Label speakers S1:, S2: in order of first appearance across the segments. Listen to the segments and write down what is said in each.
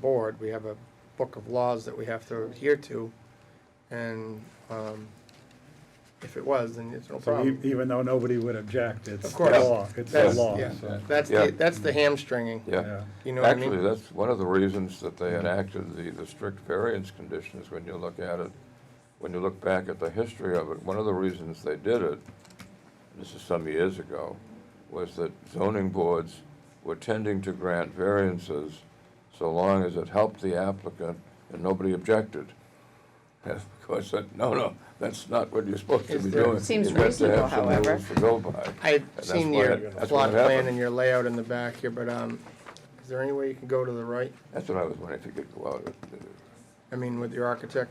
S1: board, we have a book of laws that we have to adhere to, and um, if it was, then it's no
S2: So e-
S1: problem.
S2: even though nobody would object, it's
S1: Of
S2: the
S1: course.
S2: law, it's the
S1: That's-
S2: law,
S1: yeah.
S2: so,
S1: That's
S3: Yeah.
S1: the, that's the hamstringing,
S3: yeah.
S1: you know what I mean?
S3: Actually, that's one of the reasons that they enacted the, the strict variance conditions when you look at it, when you look back at the history of it, one of the reasons they did it, this is some years ago, was that zoning boards were tending to grant variances so long as it helped the applicant and nobody objected. And of course, that, no, no, that's not what you're supposed to
S1: Is
S3: be
S1: there-
S3: doing.
S4: Seems
S3: You've got to
S4: reasonable,
S3: have some
S4: however.
S3: rules To go by.
S1: I've
S3: that's
S1: seen
S3: why
S1: your
S3: it- that's
S1: plot
S3: what happened.
S1: plan and your layout in the back here, but um, is there any way you can go to the right?
S3: That's what I was wondering, if you could go out, uh,
S1: I mean, with your architect,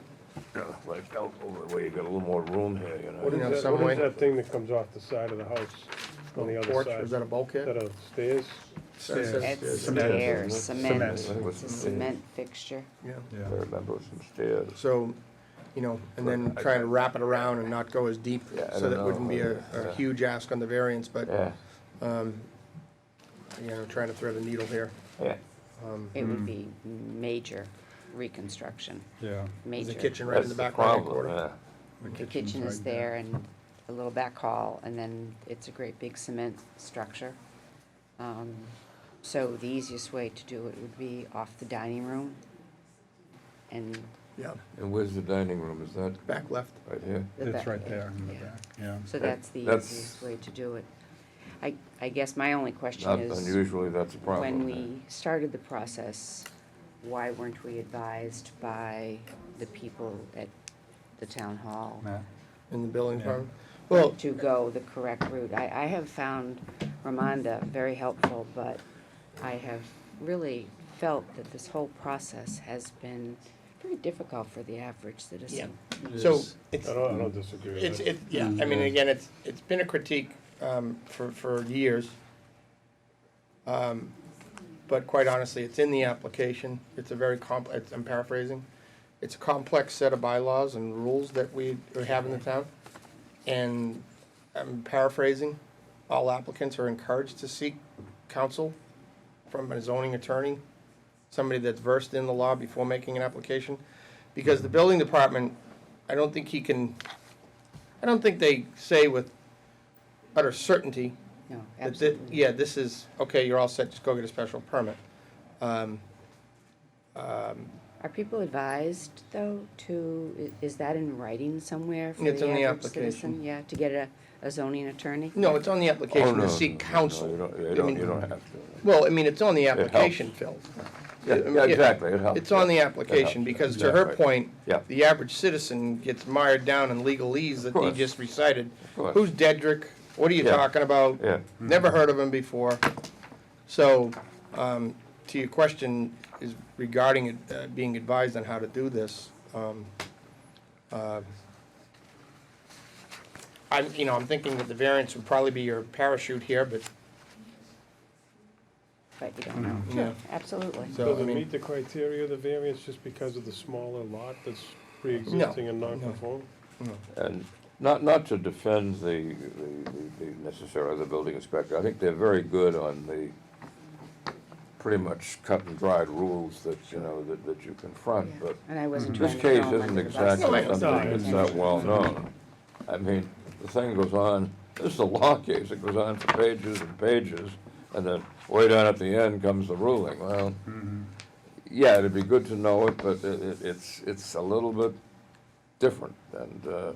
S3: Yeah, like out over the way, you got a little more room here, you
S1: What
S3: know.
S1: is-
S5: What is
S1: some
S5: that- what
S1: way.
S5: is that thing that comes off the side of the house on the other
S1: porch,
S5: side?
S1: is that a
S5: Is that
S1: bulkhead?
S5: a stairs?
S1: Stairs.
S2: stairs,
S4: It's
S2: Cement.
S4: stairs,
S3: I
S4: cement,
S3: think it was the stairs.
S4: cement fixture.
S1: Yeah,
S2: yeah.
S3: I remember it was some stairs.
S1: so, you know, and then try to wrap it around and not go as deep,
S3: Yeah, I
S1: so
S3: don't
S1: that
S3: know.
S1: wouldn't be a,
S3: Yeah.
S1: a huge ask on the variance, but,
S3: Yeah,
S1: you know, trying to thread a needle here.
S3: yeah.
S4: It
S2: Mm-hmm.
S4: would be major reconstruction,
S2: Yeah,
S1: There's
S4: major.
S1: a kitchen right in
S3: That's
S1: the back right hand
S3: problem,
S1: corner.
S3: yeah.
S4: The kitchen is there and a little back hall, and then it's a great big cement structure. Um, So the easiest way to do it would be off the dining room and
S1: Yeah,
S3: And where's the dining room, is that
S1: back left.
S3: right here?
S4: the back.
S2: it's right there in the
S4: yeah.
S2: back, yeah.
S4: So that's the
S3: That's-
S4: easiest way to do it. I, I guess my only question
S3: Not
S4: is.
S3: unusually, that's a problem.
S4: when
S3: yeah.
S4: we started the process, why weren't we advised by the people at the town hall
S2: Matt?
S1: In the building
S2: Yeah.
S1: department? Well,
S4: to go the correct route? I, I have found Ramonda very helpful, but I have really felt that this whole process has been very difficult for the average citizen.
S1: so, it's,
S5: I don't, I don't disagree with
S1: It's,
S5: that.
S1: it, yeah, I mean, again, it's, it's been a critique, um, for, for years. Um, But quite honestly, it's in the application, it's a very compl, it's, I'm paraphrasing, it's a complex set of bylaws and rules that we we have in the town. And I'm paraphrasing, all applicants are encouraged to seek counsel from a zoning attorney, somebody that's versed in the law before making an application. Because the building department, I don't think he can, I don't think they say with utter certainty
S4: No,
S1: that, thi-
S4: absolutely.
S1: yeah, this is, okay, you're all set, just go get a special permit. Um,
S4: Are people advised, though, to, i- is that in writing somewhere for the
S1: It's on the
S4: average
S1: application.
S4: citizen? Yeah, to get a, a zoning attorney?
S1: No, it's on the
S3: Oh,
S1: application
S3: no,
S1: to
S3: no,
S1: seek
S3: no,
S1: counsel.
S3: You don't, you
S1: I
S3: don't,
S1: mean,
S3: you don't have to.
S1: Well, I mean, it's on the
S3: helps.
S1: application, Phil.
S3: Yeah,
S1: I mean,
S3: yeah,
S1: it-
S3: exactly, it helps.
S1: It's on the
S3: yeah. It
S1: application,
S3: helps,
S1: because to her
S3: exactly.
S1: point,
S3: Yeah.
S1: the average citizen gets mired down in legalese that he
S3: course.
S1: just recited.
S3: course.
S1: Who's Dedrick? What are you
S3: Yeah.
S1: talking about?
S3: Yeah.
S1: Never heard of him before. So, um, to your question is regarding it, uh, being advised on how to do this, um, uh, I'm, you know, I'm thinking that the variance would probably be your parachute here, but,
S4: But you don't know.
S1: you know,
S4: Absolutely.
S1: so,
S5: Does
S1: I
S5: it
S1: mean,
S5: meet the criteria of the variance just because of the smaller lot that's pre-existing and
S1: No, no.
S5: non-conforming?
S3: And not, not to defend the, the- the, the necessarily the building inspector, I think they're very good on the pretty much cut and dried rules that, you know, that, that you confront,
S4: Yeah.
S3: but
S4: And I wasn't
S3: this
S4: trying to
S3: case
S4: throw 'em
S3: isn't
S4: under the bus.
S3: exactly
S1: No, it's
S3: something that's that well-known. I mean, the thing goes on, this is a law case, it goes on for pages and pages, and then way down at the end comes the ruling, well, yeah, it'd be good to know it, but it, it- it's, it's a little bit different, and, uh,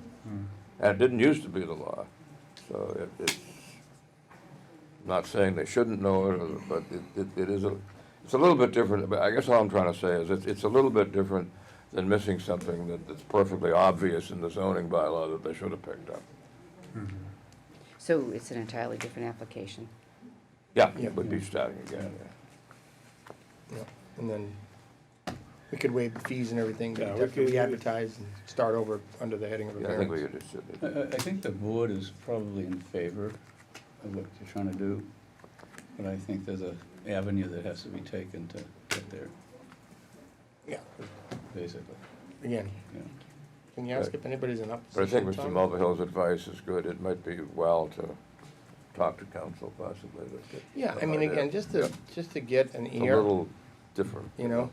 S3: and it didn't used to be the law, so it, it's, not saying they shouldn't know it, or- but it, it, it is a, it's a little bit different, but I guess all I'm trying to say is it's, it's a little bit different than missing something that, that's perfectly obvious in the zoning bylaw that they should have picked up.
S4: So it's an entirely different application.
S3: Yeah, it would be starting again,
S1: yeah, and then we could waive the fees and everything, but
S5: Yeah,
S1: we'd
S5: we
S1: have to
S5: could-
S1: re-advertise and start over under the heading of a
S3: yeah. Uh, Yeah, I think we
S1: variance.
S3: could just,
S6: I, I I think the board is probably in favor of what you're trying to do, but I think there's a avenue that has to be taken to get there,
S1: Yeah,
S6: basically,
S1: again,
S6: yeah.
S1: can you ask if anybody's in
S3: but I
S1: opposition,
S3: think Mr.
S1: Tom?
S3: Mulvihill's advice is good, it might be well to talk to council possibly, to get
S1: Yeah, I
S3: some
S1: mean,
S3: idea.
S1: again, just to, just to get an
S3: It's a
S1: ear,
S3: little different.
S1: you know,